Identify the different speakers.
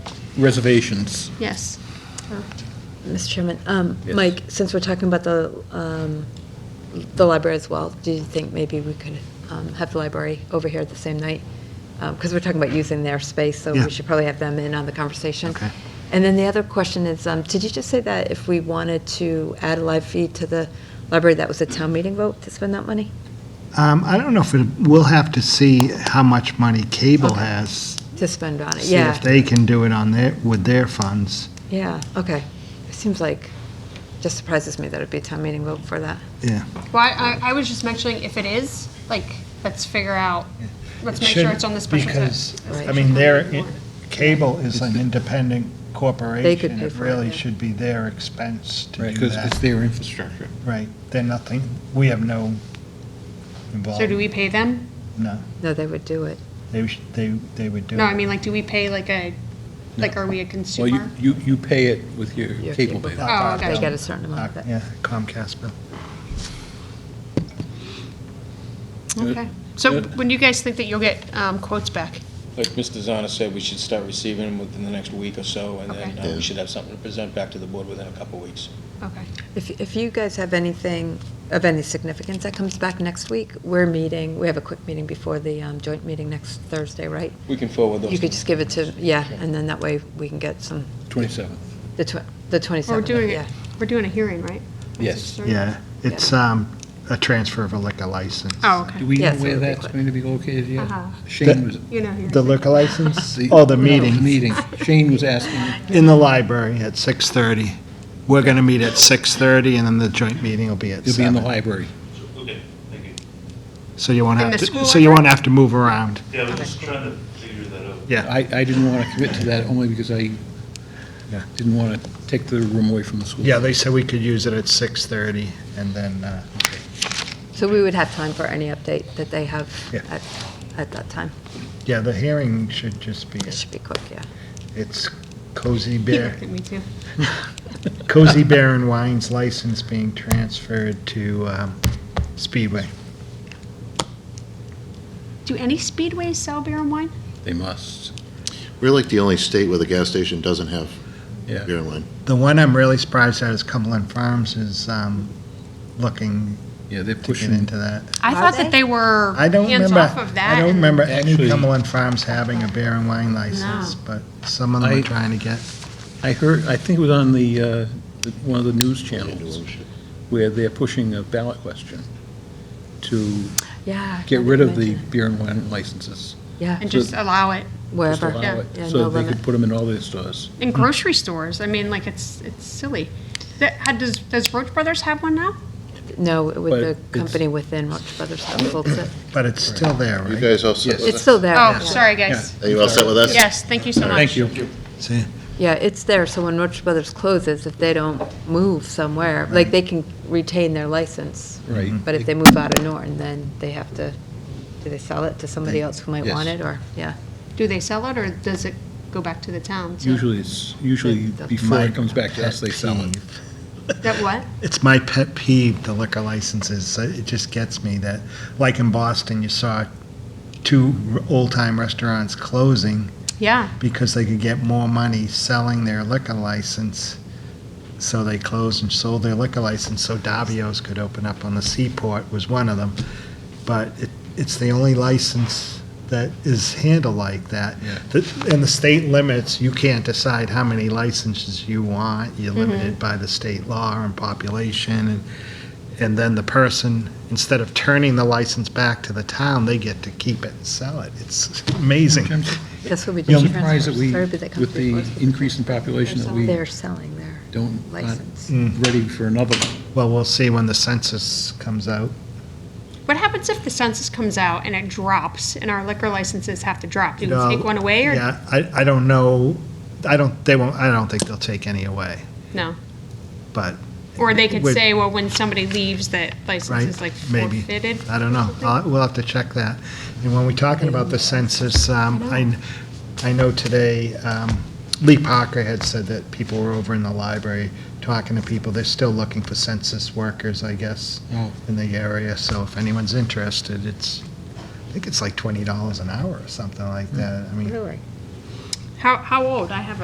Speaker 1: reservations.
Speaker 2: Yes.
Speaker 3: Mr. Chairman, um,
Speaker 1: Yes.
Speaker 3: Mike, since we're talking about the, um, the library as well, do you think maybe we could um, have the library over here the same night? Because we're talking about using their space, so
Speaker 4: Yeah.
Speaker 3: we should probably have them in on the conversation.
Speaker 4: Okay.
Speaker 3: And then the other question is, um, did you just say that if we wanted to add a live feed to the library, that was a town meeting vote to spend that money?
Speaker 4: Um, I don't know if it, we'll have to see how much money cable
Speaker 3: Okay.
Speaker 4: has.
Speaker 3: To spend on it,
Speaker 4: See
Speaker 3: yeah.
Speaker 4: if they can do it on their, with their funds.
Speaker 3: Yeah, okay. It seems like, just surprises me that it'd be a town meeting vote for that.
Speaker 4: Yeah.
Speaker 2: Well, I, I was just mentioning if it is, like, let's figure out, let's make sure it's on the special. se-
Speaker 4: Because,
Speaker 3: Right.
Speaker 4: I mean, their, cable is an independent corporation.
Speaker 3: They could pay for it,
Speaker 4: really
Speaker 3: yeah.
Speaker 4: should be their expense to do
Speaker 1: Because it's
Speaker 4: that.
Speaker 1: their infrastructure.
Speaker 4: Right, they're nothing, we have
Speaker 2: So
Speaker 4: no
Speaker 2: do
Speaker 4: involvement,
Speaker 2: we pay them?
Speaker 4: no.
Speaker 3: No, they would do it.
Speaker 4: They, sh- they, they would do it.
Speaker 2: No, I mean, like, do we pay like a, like, are we a
Speaker 1: Well, you,
Speaker 2: consumer?
Speaker 1: you you pay it with your
Speaker 3: Your
Speaker 1: cable
Speaker 3: cable
Speaker 1: bill.
Speaker 3: bill.
Speaker 2: Oh,
Speaker 3: They
Speaker 2: okay.
Speaker 3: get a certain
Speaker 4: Uh,
Speaker 3: amount of it.
Speaker 4: Yeah, Comcast bill.
Speaker 2: Mm-hmm. Okay. So when do you guys think that you'll get um, quotes back?
Speaker 5: Like Mr. Zana said, we should start receiving them within the next week or so, and then
Speaker 2: Okay.
Speaker 5: uh, we should have something to present back to the board within a couple of weeks.
Speaker 2: Okay.
Speaker 3: If, if you guys have anything of any significance that comes back next week, we're meeting, we have a quick meeting before the um, joint meeting next Thursday, right?
Speaker 5: We can forward those.
Speaker 3: You could just give it to, yeah, and then that way we can get some,
Speaker 1: 27th.
Speaker 3: the tw- the 27th.
Speaker 2: We're doing
Speaker 3: yeah.
Speaker 2: it, we're doing a hearing, right?
Speaker 1: Yes.
Speaker 4: Yeah, it's, um, a transfer of a liquor license.
Speaker 2: Oh, okay.
Speaker 1: Do we know
Speaker 3: Yes, it
Speaker 1: where
Speaker 3: would be
Speaker 1: that's
Speaker 3: quick.
Speaker 1: going to be located yet?
Speaker 2: Uh-huh.
Speaker 1: Shane was.
Speaker 2: You know.
Speaker 4: The liquor license?
Speaker 1: the-
Speaker 4: Oh, the
Speaker 1: no,
Speaker 4: meeting.
Speaker 1: Meeting. Shane was asking,
Speaker 4: In the library at 6:30. We're going to meet at 6:30, and then the joint meeting will be at
Speaker 1: you'll be in the
Speaker 4: 7.
Speaker 1: library.
Speaker 6: Okay, thank you.
Speaker 4: So you won't
Speaker 2: In
Speaker 4: have
Speaker 2: the
Speaker 4: to,
Speaker 2: school
Speaker 4: so you won't have to move around.
Speaker 6: Yeah, I was just trying to figure that out.
Speaker 4: Yeah.
Speaker 1: I, I didn't want to commit to that only because I
Speaker 4: Yeah.
Speaker 1: didn't want to take the room away from the school.
Speaker 4: Yeah, they said we could use it at 6:30, and then, uh,
Speaker 3: So we would have time for any update that they have
Speaker 4: Yeah.
Speaker 3: at, at that time.
Speaker 4: yeah, the hearing should just be,
Speaker 3: It should be quick, yeah.
Speaker 4: it's Cozy
Speaker 2: He
Speaker 4: Bear,
Speaker 2: looked at me too.
Speaker 4: Cozy Bear and Wine's license being transferred to um, Speedway.
Speaker 2: Do any speedways sell beer and wine?
Speaker 1: They must.
Speaker 7: We're like the only state where the gas station doesn't have
Speaker 1: Yeah.
Speaker 7: beer and wine.
Speaker 4: The one I'm really surprised at is Cumberland Farms is um, looking
Speaker 1: Yeah, they're
Speaker 4: to get
Speaker 1: pushing.
Speaker 4: into that.
Speaker 2: I
Speaker 3: Are
Speaker 2: thought that
Speaker 3: they?
Speaker 2: they were
Speaker 4: I don't
Speaker 2: hands
Speaker 4: remember,
Speaker 2: off of that.
Speaker 4: I don't
Speaker 2: and-
Speaker 4: remember any
Speaker 1: Actually-
Speaker 4: Cumberland Farms having a beer and wine license, but some of them
Speaker 1: I-
Speaker 4: are trying to get,
Speaker 1: I heard, I think it was on the, uh, the- one of the news channels
Speaker 7: It's
Speaker 1: where they're pushing a ballot question to
Speaker 3: Yeah.
Speaker 1: get
Speaker 3: I
Speaker 1: rid of
Speaker 3: didn't
Speaker 1: the
Speaker 3: mention
Speaker 1: beer and wine licenses.
Speaker 3: it. Yeah,
Speaker 2: And just allow it.
Speaker 1: just
Speaker 3: wherever.
Speaker 1: allow it,
Speaker 3: Yeah, no
Speaker 1: So they
Speaker 3: limit.
Speaker 1: could put them in all their stores.
Speaker 2: In grocery stores, I mean, like, it's, it's silly. That, how, does, does Roach Brothers have one now?
Speaker 3: No,
Speaker 1: But
Speaker 3: with
Speaker 1: it's-
Speaker 3: the company within Roche Brothers Households.
Speaker 4: but it's still there,
Speaker 7: You
Speaker 4: right?
Speaker 7: guys all set
Speaker 1: Yes.
Speaker 7: with
Speaker 3: It's
Speaker 7: us?
Speaker 3: still there.
Speaker 2: Oh,
Speaker 3: yeah.
Speaker 2: sorry, guys.
Speaker 7: Are you all set with us?
Speaker 2: Yes, thank you so much.
Speaker 1: Thank you.
Speaker 4: See,
Speaker 3: Yeah, it's there, so when Roach Brothers closes, if they don't move somewhere, like, they can retain their license.
Speaker 1: Right.
Speaker 3: But if they move out of Norton, then they have to, do they sell it to somebody else who might want
Speaker 1: Yes.
Speaker 3: it, or, yeah?
Speaker 2: Do they sell it, or does it go back to the town? So-
Speaker 1: Usually it's, usually
Speaker 3: That's
Speaker 1: before
Speaker 4: my
Speaker 1: it comes back to us, they sell it.
Speaker 4: peeve.
Speaker 2: That what?
Speaker 4: It's my pet peeve, the liquor licenses, So it just gets me that, like in Boston, you saw two r- old-time restaurants closing
Speaker 2: Yeah,
Speaker 4: because they could get more money selling their liquor license. So they closed and sold their liquor license so Davio's could open up on the seaport was one of them. But it, it's the only license that is handled like that.
Speaker 1: Yeah.
Speaker 4: The- And the state limits, you can't decide how many licenses you want. You're limited by the state law and population. And, and then the person, instead of turning the license back to the town, they get to keep it and sell it. It's amazing.
Speaker 3: That's what we do.
Speaker 1: I'm surprised that we,
Speaker 3: Everybody that comes
Speaker 1: with the
Speaker 3: before us.
Speaker 1: increase in population, that we
Speaker 3: They're selling their
Speaker 1: don't, aren't
Speaker 3: license.
Speaker 1: ready for another.
Speaker 4: Well, we'll see when the census comes out.
Speaker 2: what happens if the census comes out and it drops, and our liquor licenses have to drop? Do
Speaker 4: You
Speaker 2: we
Speaker 4: know,
Speaker 2: take one away, or?
Speaker 4: Yeah, I, I don't know, I don't, they won't, I don't think they'll take any away,
Speaker 2: No,
Speaker 4: but,
Speaker 2: or they could
Speaker 4: Would-
Speaker 2: say, well, when somebody leaves, that license
Speaker 4: Right,
Speaker 2: is like
Speaker 4: maybe.
Speaker 2: forfeited?
Speaker 4: I don't know. I'll- We'll have to check that. And when we're talking about the census, um, I, I know today, um, Lee Parker had said that people were over in the library talking to people. They're still looking for census workers, I guess,
Speaker 1: Oh.
Speaker 4: in the area. So if anyone's interested, it's, I think it's like $20 an hour or something like that. I mean,
Speaker 3: Really?
Speaker 2: How, how old? I have a